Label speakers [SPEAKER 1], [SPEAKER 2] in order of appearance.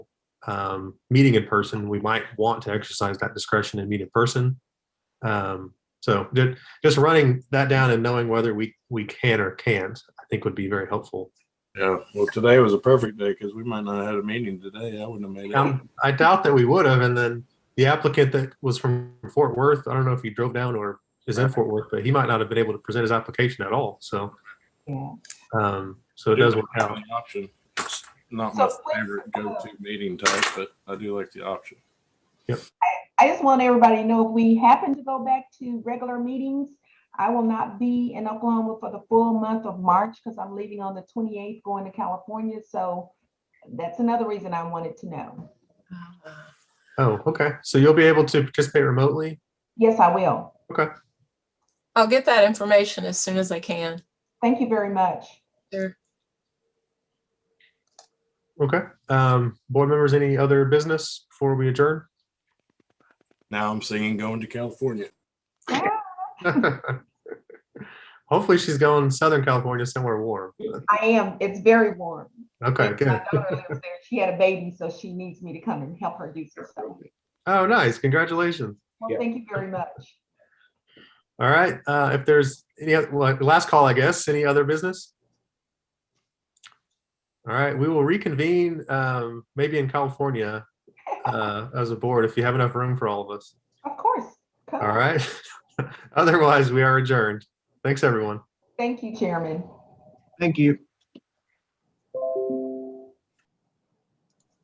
[SPEAKER 1] um, meeting in person, we might want to exercise that discretion and meet in person. Um, so ju- just running that down and knowing whether we, we can or can't, I think would be very helpful.
[SPEAKER 2] Yeah, well, today was a perfect day because we might not have had a meeting today. I wouldn't have made it.
[SPEAKER 1] Um, I doubt that we would have. And then the applicant that was from Fort Worth, I don't know if he drove down or is in Fort Worth, but he might not have been able to present his application at all. So,
[SPEAKER 3] Yeah.
[SPEAKER 1] um, so it does work
[SPEAKER 2] have
[SPEAKER 1] out.
[SPEAKER 2] an Option. It's Not my
[SPEAKER 3] So please,
[SPEAKER 2] favorite go-to meeting type, but I do like the option.
[SPEAKER 3] I just want everybody to know if we happen to go back to regular meetings, I will not be in Oklahoma for the full month of March because I'm leaving on the 28th going to California. So that's another reason I wanted to know.
[SPEAKER 1] Oh, okay. So you'll be able to participate remotely?
[SPEAKER 3] Yes, I will.
[SPEAKER 4] I'll get that information as soon as I can.
[SPEAKER 3] Thank you very much.
[SPEAKER 4] Sure.
[SPEAKER 1] Okay. Um, board members, any other business before we adjourn?
[SPEAKER 2] Now I'm singing going to California.
[SPEAKER 1] Hopefully she's going Southern California somewhere warm.
[SPEAKER 3] I am, it's very warm.
[SPEAKER 1] Okay,
[SPEAKER 3] My
[SPEAKER 1] good.
[SPEAKER 3] daughter lives there. She had a baby, so she needs me to come and help her do some stuff.
[SPEAKER 1] Oh, nice. Congratulations.
[SPEAKER 3] Well, thank you very much.
[SPEAKER 1] All right. Uh, if there's any, oth- well, last call, I guess, any other business? All right, we will reconvene, um, maybe in California, uh, as a board, if you have enough room for all of us.
[SPEAKER 3] Of course. Come
[SPEAKER 1] All
[SPEAKER 3] on.
[SPEAKER 1] right. Otherwise, we are adjourned. Thanks, everyone.
[SPEAKER 3] Thank you, Chairman.
[SPEAKER 5] Thank you.